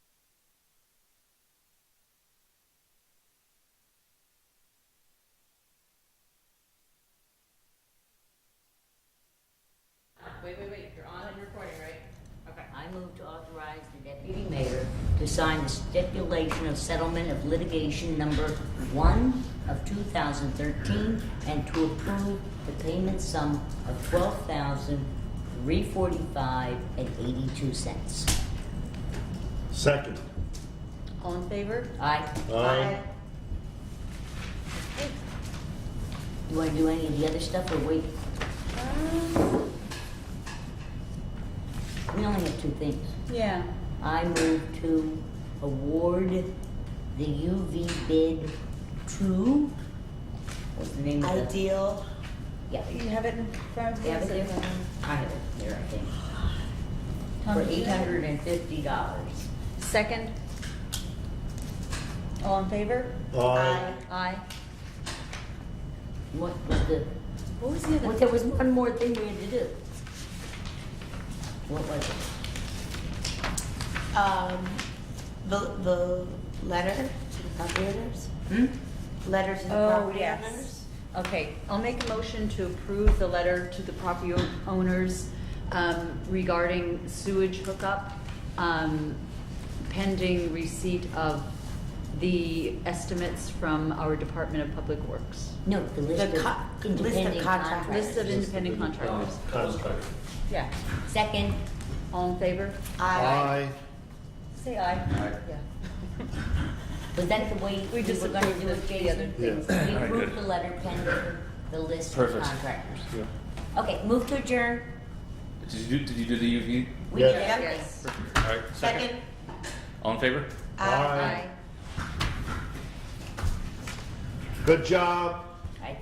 to sign the stipulation of settlement of litigation number one of two thousand thirteen and to approve the payment sum of twelve thousand three forty-five and eighty-two cents. Second. All in favor? Aye? Aye. You wanna do any of the other stuff or wait? Um, We only have two things. Yeah, I move to award the UV bid to, what's the name of the? Ideal, Yeah, you have it in front of you? Yeah, but Is it, if- um, I have it here, I think. Tom, For did you eight have it? hundred and fifty dollars. second. All in favor? Aye. Aye. What was the, What was the well, other? there was one more thing we had to do. What was it? Um, the, the letter to the property owners? Hmm? Letter to the Oh, property yes. owners? Okay, I'll make a motion to approve the letter to the property o- owners um, regarding sewage hookup um, pending receipt of the estimates from our Department of Public Works. No, the list The co- of list of independent contract- contractors. List of independent contractors. Contract. Yeah. Second, All in favor? Aye. Aye. Say aye. Aye. Yeah. was that the way we We just were gonna approved do it, the- the other Jason? things. We Yeah. All right, approved good. the letter pending the list of Perfect. contractors. Yeah. Okay, move to adjourn. Did you do, did you do the UV? We Yes. did. Yep. Yes. All right, second. Second? uh, All in favor? Aye. Aye. Good job.